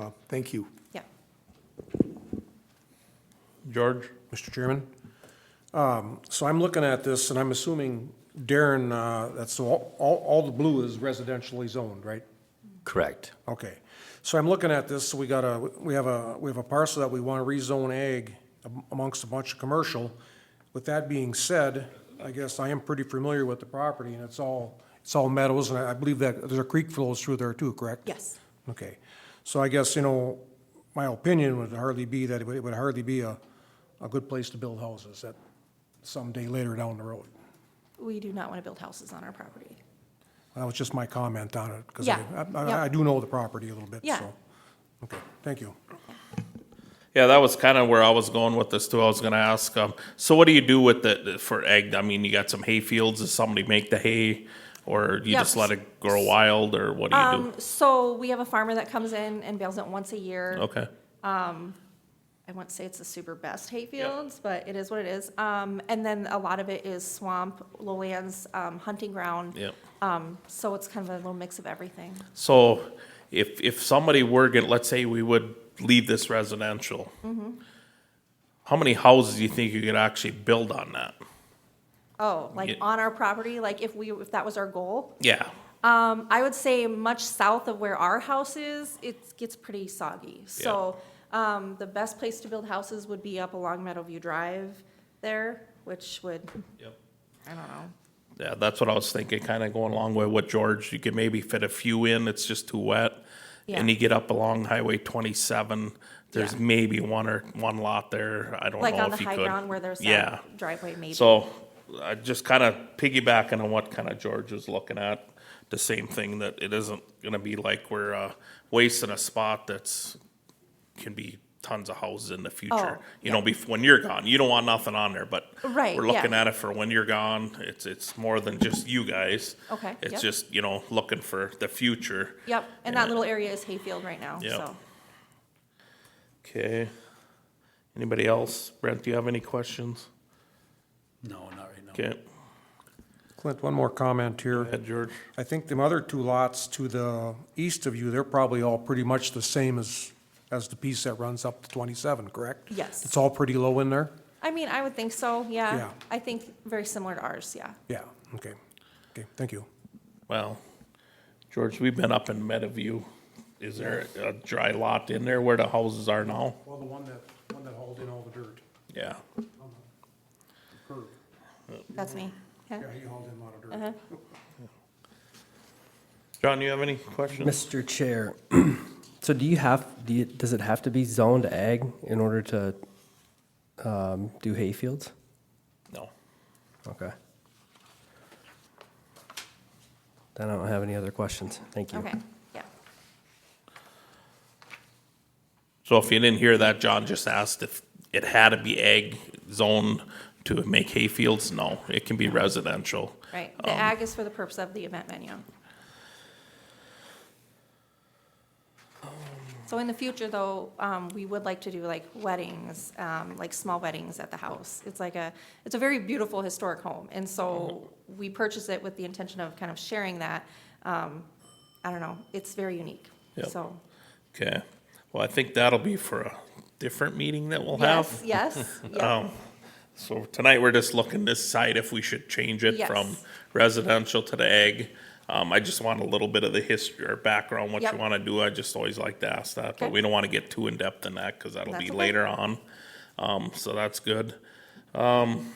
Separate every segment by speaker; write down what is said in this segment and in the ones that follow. Speaker 1: uh, thank you.
Speaker 2: Yeah.
Speaker 3: George?
Speaker 4: Mr. Chairman. Um, So I'm looking at this, and I'm assuming Darren, uh, that's, all, all all the blue is residentially zoned, right?
Speaker 5: Correct.
Speaker 4: Okay. So I'm looking at this, so we got a, we have a, we have a parcel that we want to rezone ag amongst a bunch of commercial. With that being said, I guess I am pretty familiar with the property, and it's all, it's all meadows, and I I believe that there's a creek flows through there too, correct?
Speaker 2: Yes.
Speaker 4: Okay, so I guess, you know, my opinion would hardly be that it would it would hardly be a, a good place to build houses that someday later down the road.
Speaker 2: We do not want to build houses on our property.
Speaker 4: That was just my comment on it, because
Speaker 2: Yeah,
Speaker 4: I,
Speaker 2: yeah.
Speaker 4: I- I do know the property a little bit, so.
Speaker 2: Yeah.
Speaker 4: Okay, thank you.
Speaker 3: Yeah, that was kind of where I was going with this too. I was gonna ask, um, so what do you do with the, the- for egg? I mean, you got some hay fields, does somebody make the hay? Or you
Speaker 2: Yep.
Speaker 3: just let it grow wild, or what do you
Speaker 2: Um, so we have a farmer that comes in and bales it once a year.
Speaker 3: do? Okay,
Speaker 2: I wouldn't say it's the super best hay fields, but it is what it is. Um, and then a lot of it is swamp, lowlands, um, hunting ground.
Speaker 3: yeah.
Speaker 2: Um, so it's kind of a little mix of everything.
Speaker 3: So if, if somebody were gonna, let's say we would leave this residential.
Speaker 2: Mm-hmm.
Speaker 3: How many houses do you think you could actually build on that?
Speaker 2: Oh, like
Speaker 3: Yeah.
Speaker 2: on our property, like if we, if that was our goal.
Speaker 3: Yeah,
Speaker 2: Um, I would say much south of where our house is, it gets pretty soggy. So, um, the best place to build houses would be up along Meadowview Drive there, which would,
Speaker 3: Yep.
Speaker 2: I don't know.
Speaker 3: yeah, that's what I was thinking, kind of going along with what George, you could maybe fit a few in, it's just too wet.
Speaker 2: Yeah.
Speaker 3: And you get up along Highway twenty-seven, there's
Speaker 2: Yeah.
Speaker 3: maybe one or, one lot there, I don't
Speaker 2: Like
Speaker 3: know
Speaker 2: on the
Speaker 3: if you
Speaker 2: high
Speaker 3: could.
Speaker 2: ground where there's
Speaker 3: Yeah.
Speaker 2: that driveway maybe.
Speaker 3: So, I just kind of piggybacking on what kind of George was looking at, the same thing that it isn't gonna be like we're, uh, wasting a spot that's, can be tons of houses in the future.
Speaker 2: Oh,
Speaker 3: You know, bef, when you're gone, you don't want nothing on there, but.
Speaker 2: Right,
Speaker 3: We're
Speaker 2: yeah.
Speaker 3: looking at it for when you're gone, it's, it's more than just you guys.
Speaker 2: Okay,
Speaker 3: It's
Speaker 2: yep.
Speaker 3: just, you know, looking for the future.
Speaker 2: Yep, and that
Speaker 3: Yeah.
Speaker 2: little area is hayfield right now,
Speaker 3: Yep.
Speaker 2: so.
Speaker 3: Okay. Anybody else? Brent, do you have any questions?
Speaker 1: No, not right now.
Speaker 3: Okay,
Speaker 4: Clint, one more comment here.
Speaker 3: Ed, George?
Speaker 4: I think the other two lots to the east of you, they're probably all pretty much the same as, as the piece that runs up to twenty-seven, correct?
Speaker 2: Yes.
Speaker 4: It's all pretty low in there?
Speaker 2: I mean, I would think so, yeah.
Speaker 4: Yeah.
Speaker 2: I think very similar to ours, yeah.
Speaker 4: Yeah, okay. Okay, thank you.
Speaker 3: Well, George, we've been up in Meadowview. Is there a dry lot in there where the houses are now?
Speaker 4: Well, the one that, one that hauled in all the dirt,
Speaker 3: Yeah.
Speaker 2: That's
Speaker 3: Mm-hmm.
Speaker 2: me. Yeah.
Speaker 4: he hauled in a lot of dirt.
Speaker 3: John, you have any questions?
Speaker 6: Mr. Chair, so do you have, do you, does it have to be zoned ag in order to, um, do hayfields?
Speaker 3: No.
Speaker 6: Okay. Then I don't have any other questions. Thank you.
Speaker 2: Okay, yeah.
Speaker 3: So if you didn't hear that, John just asked if it had to be egg zone to make hay fields. No, it can be residential.
Speaker 2: Right, the ag is for the purpose of the event venue. So in the future, though, um, we would like to do like weddings, um, like small weddings at the house. It's like a, it's a very beautiful historic home, and so we purchased it with the intention of kind of sharing that. Um, I don't know, it's very unique,
Speaker 3: Yep.
Speaker 2: so.
Speaker 3: Okay. Well, I think that'll be for a different meeting that we'll
Speaker 2: Yes,
Speaker 3: have.
Speaker 2: yes, yeah,
Speaker 3: Um, so tonight, we're just looking to decide if we should change it
Speaker 2: Yes.
Speaker 3: from residential to the ag. Um, I just want a little bit of the history or background, what you
Speaker 2: Yep.
Speaker 3: wanna do. I just always like to ask that, but
Speaker 2: Okay.
Speaker 3: we don't wanna get too in-depth in that, cause that'll be
Speaker 2: That's okay.
Speaker 3: later on. Um, so that's good. Um,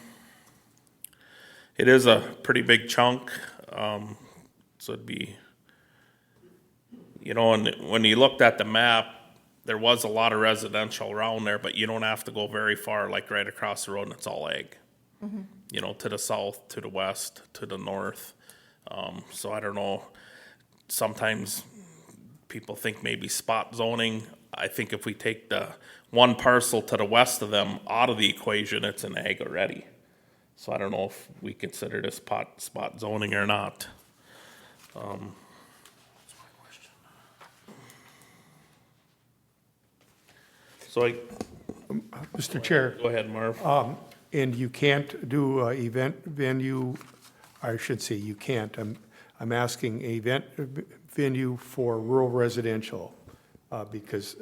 Speaker 3: it is a pretty big chunk, um, so it'd be, you know, and when you looked at the map, there was a lot of residential around there, but you don't have to go very far, like right across the road and it's all ag.
Speaker 2: Mm-hmm.
Speaker 3: You know, to the south, to the west, to the north. Um, so I don't know, sometimes people think maybe spot zoning. I think if we take the one parcel to the west of them out of the equation, it's an ag already. So I don't know if we consider this pot, spot zoning or not. Um, So I,
Speaker 1: Mr. Chair,
Speaker 3: go ahead, Marv.
Speaker 1: and you can't do uh, event venue, I should say, you can't. I'm, I'm asking event venue for rural residential, uh, because